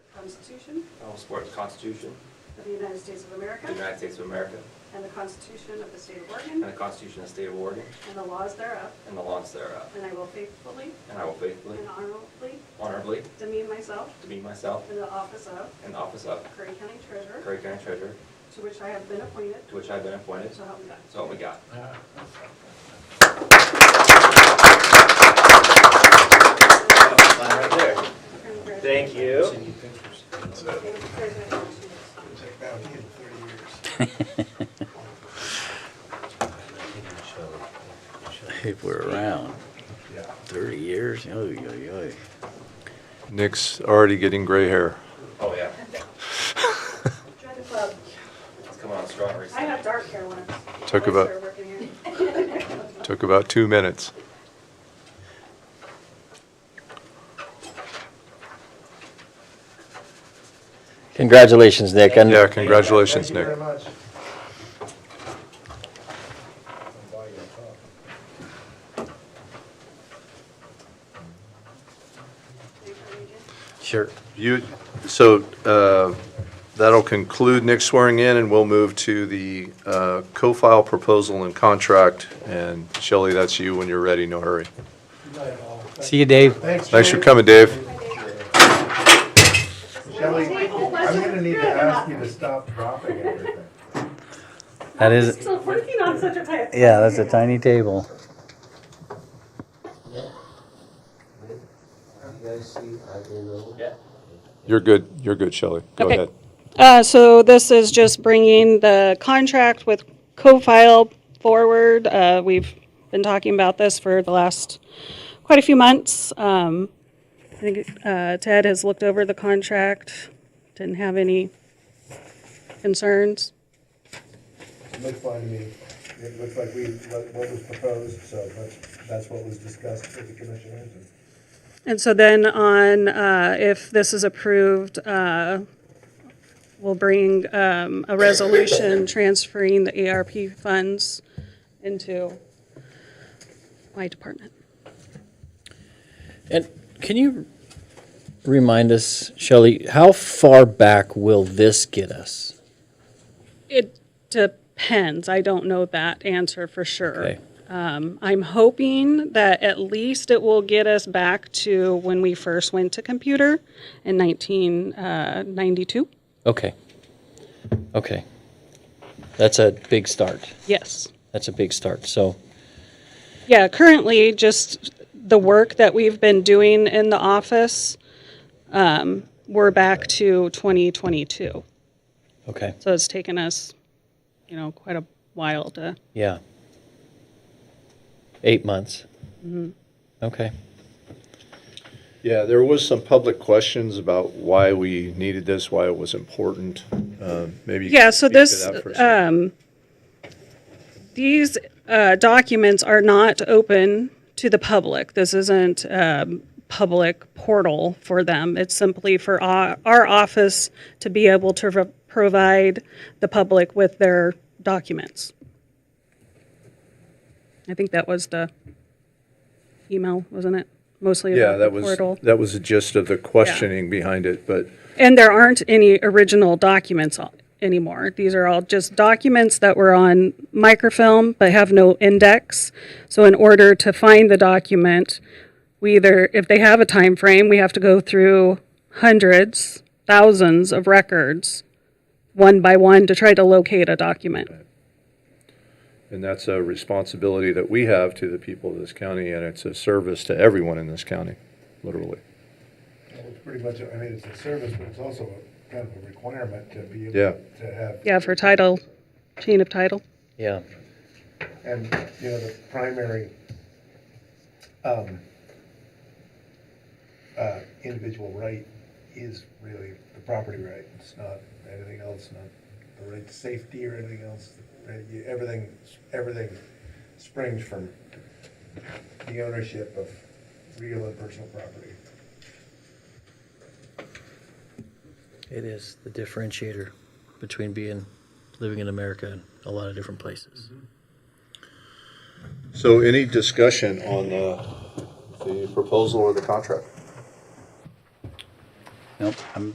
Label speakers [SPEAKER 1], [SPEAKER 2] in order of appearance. [SPEAKER 1] Constitution
[SPEAKER 2] I will support the Constitution
[SPEAKER 1] of the United States of
[SPEAKER 2] of the
[SPEAKER 1] America
[SPEAKER 2] United States of America
[SPEAKER 1] and the Constitution of the State of
[SPEAKER 2] and
[SPEAKER 1] Oregon
[SPEAKER 2] the Constitution of the State of Oregon
[SPEAKER 1] and the laws thereof,
[SPEAKER 2] and the laws thereof.
[SPEAKER 1] and I will faithfully
[SPEAKER 2] And I will faithfully,
[SPEAKER 1] and honorably
[SPEAKER 2] honorably
[SPEAKER 1] demean myself
[SPEAKER 2] demean myself
[SPEAKER 1] in the office of
[SPEAKER 2] in the office of
[SPEAKER 1] Curry County Treasurer,
[SPEAKER 2] Curry County Treasurer,
[SPEAKER 1] to which I have been appointed,
[SPEAKER 2] to which I have been appointed,
[SPEAKER 1] so help me God.
[SPEAKER 2] so help me God. Right there. Thank you.
[SPEAKER 1] Congratulations.
[SPEAKER 3] Check that in thirty years.
[SPEAKER 4] If we're around, 30 years, oh, yeah, yeah.
[SPEAKER 5] Nick's already getting gray hair.
[SPEAKER 2] Oh, yeah.
[SPEAKER 1] Join the club.
[SPEAKER 2] It's coming on strong
[SPEAKER 1] I
[SPEAKER 2] recently.
[SPEAKER 1] had dark hair once.
[SPEAKER 5] Took
[SPEAKER 1] I
[SPEAKER 5] about-
[SPEAKER 1] started working here.
[SPEAKER 5] Took about two minutes.
[SPEAKER 6] Congratulations, Nick. And
[SPEAKER 5] Yeah, congratulations, Nick.
[SPEAKER 3] Thank you very much.
[SPEAKER 6] Sure.
[SPEAKER 5] You, so uh, that'll conclude Nick's swearing in, and we'll move to the uh, co-file proposal and contract. And Shelley, that's you when you're ready, no hurry.
[SPEAKER 3] Good night, all. Thank-
[SPEAKER 6] See you, Dave.
[SPEAKER 3] Thanks.
[SPEAKER 5] Thanks for
[SPEAKER 3] Dave.
[SPEAKER 5] coming, Dave.
[SPEAKER 3] Shelley, I'm gonna need to ask you to stop dropping everything.
[SPEAKER 6] That is,
[SPEAKER 1] Still working on such a type.
[SPEAKER 6] yeah, that's a tiny table.
[SPEAKER 5] You're good, you're good, Shelley. Go
[SPEAKER 7] Okay.
[SPEAKER 5] ahead.
[SPEAKER 7] Uh, So this is just bringing the contract with co-file forward. Uh, We've been talking about this for the last quite a few months. Um, I think uh, Ted has looked over the contract, didn't have any concerns.
[SPEAKER 3] Looks fine to me. It looks like we, what what was proposed, so that's, that's what was discussed with the commissioners. and-
[SPEAKER 7] And so then on, uh, if this is approved, uh, we'll bring um, a resolution transferring the ARP funds into my department.
[SPEAKER 6] And can you remind us, Shelley, how far back will this get us?
[SPEAKER 7] It depends. I don't know that answer for sure.
[SPEAKER 6] Okay.
[SPEAKER 7] Um, I'm hoping that at least it will get us back to when we first went to computer in uh, 1992.
[SPEAKER 6] Okay. Okay. That's a big start.
[SPEAKER 7] Yes.
[SPEAKER 6] That's a big start. So,
[SPEAKER 7] Yeah, currently, just the work that we've been doing in the office, um, we're back to 2022.
[SPEAKER 6] okay.
[SPEAKER 7] So it's taken us, you know, quite a while to,
[SPEAKER 6] Yeah. Eight months. Okay.
[SPEAKER 5] Yeah, there was some public questions about why we needed this, why it was important. Um, Maybe. you
[SPEAKER 7] Yeah,
[SPEAKER 5] could
[SPEAKER 7] so
[SPEAKER 5] speak to
[SPEAKER 7] this, um,
[SPEAKER 5] that for a second.
[SPEAKER 7] these uh, documents are not open to the public. This isn't um, public portal for them. It's simply for our, our office to be able to pro- provide the public with their documents. I think that was the email, wasn't it? Mostly
[SPEAKER 5] Yeah,
[SPEAKER 7] about the
[SPEAKER 5] that was,
[SPEAKER 7] portal.
[SPEAKER 5] that was the gist of the questioning behind it, but
[SPEAKER 7] And there aren't any original documents on- anymore. These are all just documents that were on microfilm but have no index. So in order to find the document, we either, if they have a time frame, we have to go through hundreds, thousands of records, one by one, to try to locate a document.
[SPEAKER 5] And that's a responsibility that we have to the people of this county, and it's a service to everyone in this county, literally.
[SPEAKER 3] Well, It's pretty much, I mean, it's a service, but it's also a kind of a requirement to be
[SPEAKER 5] Yeah.
[SPEAKER 3] able to have
[SPEAKER 7] Yeah, for title, chain of title.
[SPEAKER 6] Yeah.
[SPEAKER 3] And, you know, the primary um, uh, individual right is really the property right. It's not anything else, not the right to safety or anything else. Right? You- Everything, everything springs from the ownership of real and personal property.
[SPEAKER 6] It is the differentiator between being living in America and a lot of different places.
[SPEAKER 5] So any discussion on the, the proposal or the contract?
[SPEAKER 6] Nope. I'm